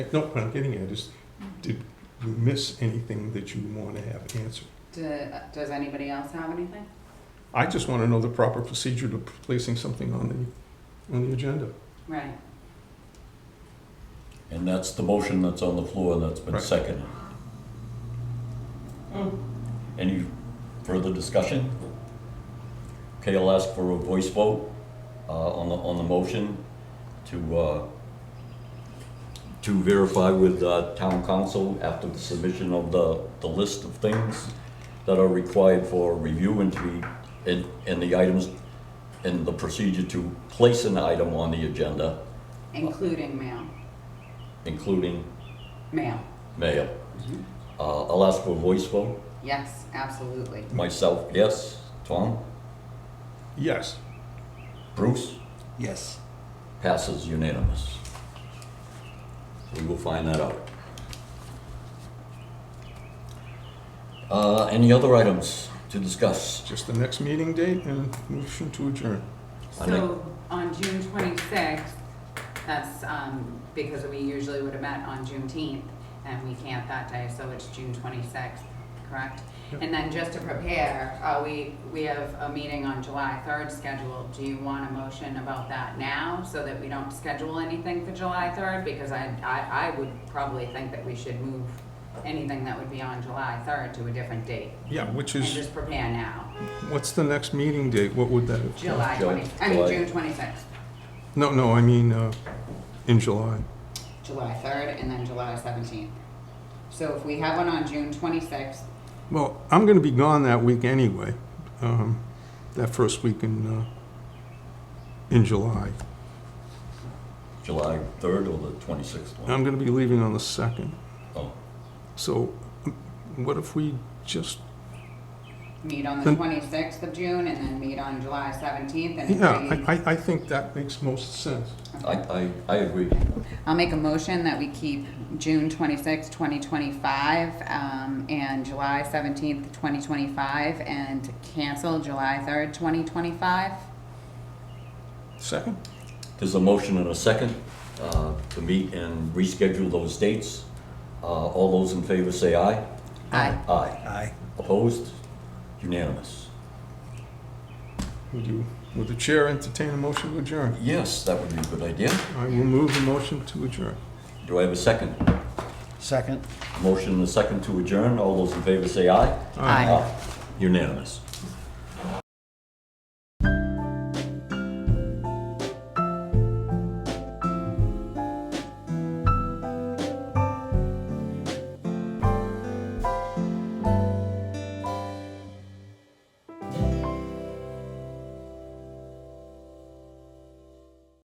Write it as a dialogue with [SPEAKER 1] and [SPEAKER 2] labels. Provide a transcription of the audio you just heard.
[SPEAKER 1] No, what I'm getting at is, did you miss anything that you want to have answered?
[SPEAKER 2] Do- Does anybody else have anything?
[SPEAKER 1] I just want to know the proper procedure to placing something on the, on the agenda.
[SPEAKER 2] Right.
[SPEAKER 3] And that's the motion that's on the floor and that's been
[SPEAKER 1] Right.
[SPEAKER 3] seconded. Any further discussion? Okay, I'll ask for a voice vote uh, on the, on the motion to, uh, to verify with uh, town council after the submission of the, the list of things that are required for review and to be, and, and the items, and the procedure to place an item on the agenda,
[SPEAKER 2] Including mail.
[SPEAKER 3] including
[SPEAKER 2] Mail.
[SPEAKER 3] Mayor, uh, I'll ask for a voice vote.
[SPEAKER 2] Yes, absolutely.
[SPEAKER 3] Myself, yes. Tom?
[SPEAKER 1] Yes.
[SPEAKER 3] Bruce?
[SPEAKER 4] Yes.
[SPEAKER 3] Passes unanimous. We will find that out. Uh, Any other items to discuss?
[SPEAKER 1] Just the next meeting date and motion to adjourn.
[SPEAKER 3] I make-
[SPEAKER 2] So on June twenty-sixth, that's, um, because we usually would have met on Juneteenth, and we can't that day, so it's June twenty-sixth, correct?
[SPEAKER 1] Yep.
[SPEAKER 2] And then just to prepare, uh, we, we have a meeting on July third scheduled. Do you want a motion about that now, so that we don't schedule anything for July third? Because I, I, I would probably think that we should move anything that would be on July third to a different date.
[SPEAKER 1] Yeah, which
[SPEAKER 2] And
[SPEAKER 1] is,
[SPEAKER 2] just prepare now,
[SPEAKER 1] what's the next meeting date? What would that?
[SPEAKER 2] July
[SPEAKER 3] Ju-
[SPEAKER 2] twenty, I mean,
[SPEAKER 3] July.
[SPEAKER 2] June twenty-sixth.
[SPEAKER 1] No, no, I mean, uh, in July.
[SPEAKER 2] July 3rd and then July 17th. So if we have one on June 26th,
[SPEAKER 1] Well, I'm going to be gone that week anyway, um, that first week in, uh, in July.
[SPEAKER 3] July 3rd or the 26th one?
[SPEAKER 1] I'm going to be leaving on the second.
[SPEAKER 3] Oh,
[SPEAKER 1] So m- what if we just,
[SPEAKER 2] meet on the
[SPEAKER 1] Then-
[SPEAKER 2] 26th of June and then meet on July 17th and
[SPEAKER 1] yeah,
[SPEAKER 2] if
[SPEAKER 1] I, I, I think that makes most sense.
[SPEAKER 3] I, I, I agree.
[SPEAKER 2] we- I'll make a motion that we keep June 26th, 2025 um, and July 17th, 2025 and cancel July 3rd, 2025.
[SPEAKER 1] Second?
[SPEAKER 3] There's a motion and a second uh, to meet and reschedule those dates. Uh, All those in favor say aye.
[SPEAKER 2] Aye.
[SPEAKER 3] Aye.
[SPEAKER 4] Aye.
[SPEAKER 3] Opposed? Unanimous.
[SPEAKER 1] Would you, would the chair entertain a motion to adjourn?
[SPEAKER 3] Yes, that would be a good idea.
[SPEAKER 1] I will move the motion to adjourn.
[SPEAKER 3] Do I have a second?
[SPEAKER 4] Second.
[SPEAKER 3] Motion and a second to adjourn. All those in favor say aye.
[SPEAKER 2] Aye.
[SPEAKER 3] Unanimous.